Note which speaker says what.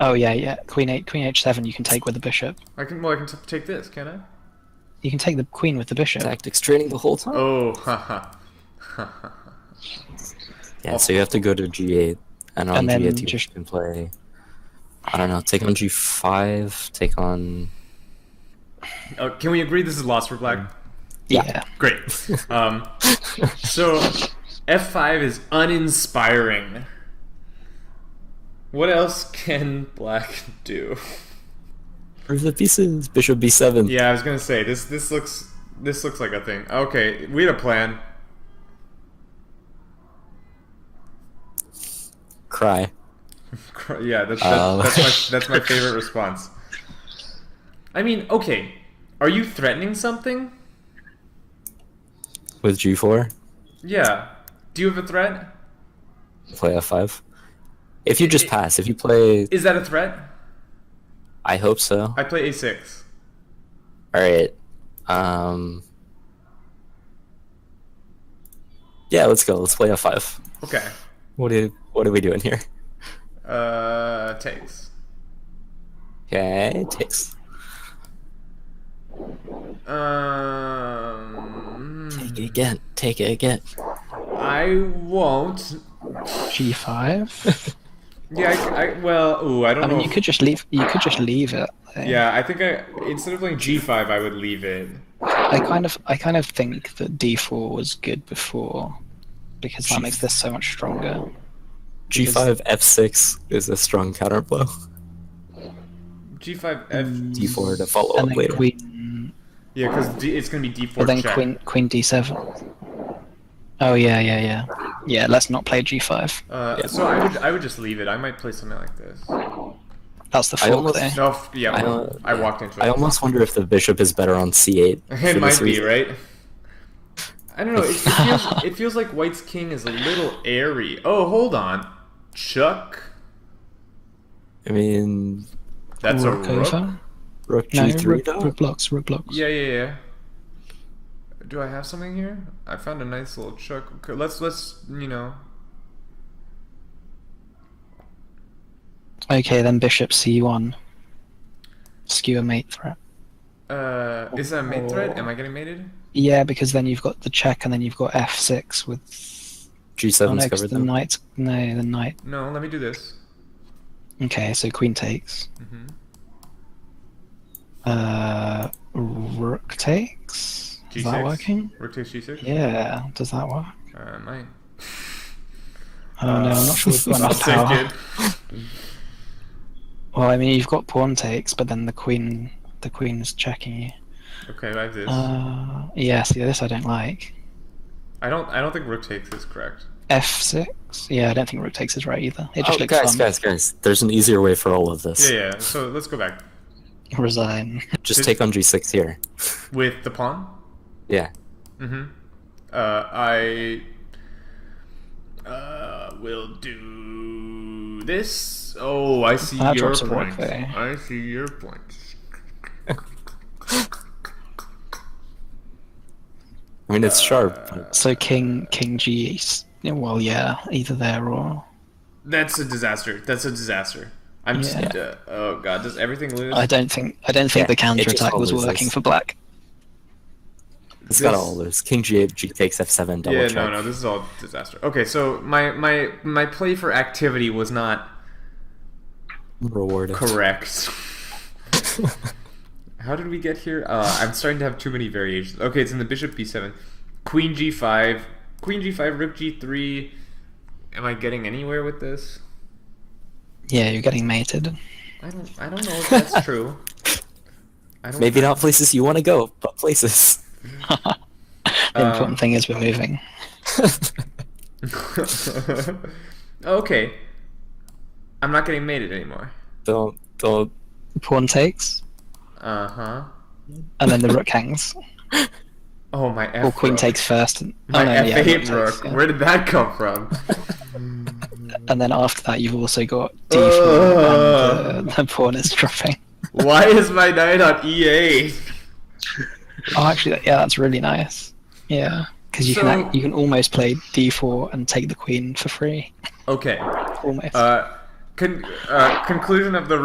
Speaker 1: Oh yeah, yeah. Queen eight, queen h seven. You can take with the bishop.
Speaker 2: I can well I can t- take this, can I?
Speaker 1: You can take the queen with the bishop.
Speaker 3: Tactics training the whole time.
Speaker 2: Oh, haha.
Speaker 3: Yeah, so you have to go to g8, and on
Speaker 1: And then
Speaker 3: g8 you
Speaker 1: just-
Speaker 3: can play. I don't know. Take on g5. Take on.
Speaker 2: Uh, can we agree this is lost for black?
Speaker 1: Yeah.
Speaker 2: Great. Um, so f5 is uninspiring. What else can black do?
Speaker 3: Move the pieces. Bishop b7.
Speaker 2: Yeah, I was gonna say this. This looks. This looks like a thing. Okay, we had a plan.
Speaker 3: Cry.
Speaker 2: Cr- Yeah, that's that's,
Speaker 3: Um.
Speaker 2: that's my that's my favorite response. I mean, okay, are you threatening something?
Speaker 3: With g4.
Speaker 2: Yeah. Do you have a threat?
Speaker 3: Play f5. If you just
Speaker 2: It-
Speaker 3: pass, if you play,
Speaker 2: Is that a threat?
Speaker 3: I hope so.
Speaker 2: I play a6.
Speaker 3: All right. Um. Yeah, let's go. Let's play f5.
Speaker 2: Okay.
Speaker 3: What are What are we doing here?
Speaker 2: Uh, takes.
Speaker 3: Okay, takes.
Speaker 2: Um,
Speaker 3: Take it again. Take it again.
Speaker 2: I won't.
Speaker 1: G five.
Speaker 2: Yeah. I, I- well. Ooh, I don't
Speaker 1: I
Speaker 2: know.
Speaker 1: mean, you
Speaker 2: if-
Speaker 1: could just leave. You could just leave it. I think.
Speaker 2: Yeah, I think I instead of playing g5, I would leave it.
Speaker 1: I kind of, I kind of think that D four was good before, because that makes this so much stronger.
Speaker 2: Oh,
Speaker 3: G5 F6 is a strong counterblow.
Speaker 2: g5 f.
Speaker 3: D4 to follow
Speaker 1: And
Speaker 3: up
Speaker 1: then
Speaker 3: later.
Speaker 1: queen,
Speaker 2: Yeah, because d- it's gonna be d4
Speaker 1: but then
Speaker 2: check.
Speaker 1: queen, queen D seven. Oh yeah, yeah, yeah, yeah. Let's not play G five.
Speaker 2: Uh,
Speaker 3: Yeah.
Speaker 2: So I would I would just leave it. I might play something like this.
Speaker 1: That's the
Speaker 3: I
Speaker 1: fork
Speaker 3: almost-
Speaker 1: there.
Speaker 2: No, f- yeah,
Speaker 3: I
Speaker 2: I,
Speaker 3: don't-
Speaker 2: walked into it.
Speaker 3: I almost wonder if the bishop is better on C8. for
Speaker 2: it might
Speaker 3: this
Speaker 2: be
Speaker 3: reason.
Speaker 2: right. I don't know. It, it, feels, it feels like White's king is a little airy. Oh, hold on, Chuck.
Speaker 3: I mean,
Speaker 2: That's
Speaker 1: Rook
Speaker 2: a rook.
Speaker 1: over.
Speaker 3: rook
Speaker 1: No,
Speaker 3: G3
Speaker 1: rook,
Speaker 3: though?
Speaker 1: rook blocks, rook blocks.
Speaker 2: Yeah, yeah, yeah. Do I have something here? I found a nice little chuck. Okay, Let's let's you know.
Speaker 1: Okay, then bishop C1. Skewer mate threat.
Speaker 2: Uh, is that a mate threat? Am I getting mated?
Speaker 1: Yeah, because then you've got the check and then you've got F6 with oh,
Speaker 3: G7's
Speaker 1: no, 'cause
Speaker 3: covered
Speaker 1: the
Speaker 3: though.
Speaker 1: knight. No, the knight.
Speaker 2: No. Let me do this.
Speaker 1: Okay, so queen takes.
Speaker 2: hmm
Speaker 1: Uh, rook takes.
Speaker 2: G6.
Speaker 1: Is that working?
Speaker 2: Rook takes G6.
Speaker 1: Yeah, does that work?
Speaker 2: Uh, mine.
Speaker 1: Oh no, I'm not sure we've got
Speaker 3: I'll
Speaker 1: enough
Speaker 2: I'll take
Speaker 1: power.
Speaker 2: it.
Speaker 1: Well, I mean, you've got pawn takes, but then the queen, the queen's checking you.
Speaker 2: Okay, I have this.
Speaker 1: Uh, yeah, see, this I don't like.
Speaker 2: I don't. I don't think rook takes is correct.
Speaker 1: F6. Yeah, I don't think rook takes is right either. It just
Speaker 3: Oh,
Speaker 1: looks
Speaker 3: guys,
Speaker 1: fun.
Speaker 3: guys, guys. There's an easier way for all of this.
Speaker 2: Yeah, yeah. So let's go back
Speaker 1: Resign.
Speaker 3: Just
Speaker 2: Did-
Speaker 3: take on G6 here.
Speaker 2: with the pawn.
Speaker 3: Yeah.
Speaker 2: Mm-hmm. Uh, I uh, will do this. Oh, I see
Speaker 1: That
Speaker 2: your
Speaker 1: drops a rook
Speaker 2: point.
Speaker 1: there.
Speaker 2: I see your point.
Speaker 3: I mean, it's sharp. But
Speaker 1: So king, king G. s- yeah, Well, yeah, either there or
Speaker 2: That's a disaster. That's a disaster. I'm just. Uh, oh God, does everything lose?
Speaker 1: I don't think I don't think
Speaker 3: Yeah,
Speaker 1: the
Speaker 3: it just
Speaker 1: counter attack was
Speaker 3: always
Speaker 1: working
Speaker 3: is.
Speaker 1: for black.
Speaker 3: it's got
Speaker 2: this-
Speaker 3: all those. King G8, G takes F7, double
Speaker 2: yeah,
Speaker 3: check.
Speaker 2: no, no, this is all disaster. Okay, so my my my play for activity was not
Speaker 3: Rewarded.
Speaker 2: correct. How did we get here? Uh, I'm starting to have too many variations. Okay, it's in the bishop b7, queen g5, queen g5, rook g3. Am I getting anywhere with this?
Speaker 1: Yeah, you're getting mated.
Speaker 2: I don't. I don't know if that's true. I don't
Speaker 3: Maybe not places you want to go, but places.
Speaker 1: the
Speaker 3: Uh,
Speaker 1: important thing is we're moving.
Speaker 2: okay. I'm not getting mated anymore.
Speaker 3: don't, don't.
Speaker 1: Pawn takes,
Speaker 2: Uh huh.
Speaker 1: and then the rook hangs.
Speaker 2: Oh my. F
Speaker 1: Or queen
Speaker 2: rook.
Speaker 1: takes first. And, oh,
Speaker 2: My
Speaker 1: no, yeah, rook
Speaker 2: f8
Speaker 1: takes,
Speaker 2: rook.
Speaker 1: yeah.
Speaker 2: Where did that come from?
Speaker 1: And then after that, you've also got d4, and uh, the pawn is dropping.
Speaker 2: Why is my knight on E e8?
Speaker 1: Oh, actually, that- yeah, that's really nice. Yeah, because you can
Speaker 2: So-
Speaker 1: act- you can almost play d4 and take the queen for free.
Speaker 2: Okay.
Speaker 1: Almost.
Speaker 2: Uh, Con- uh, conclusion of the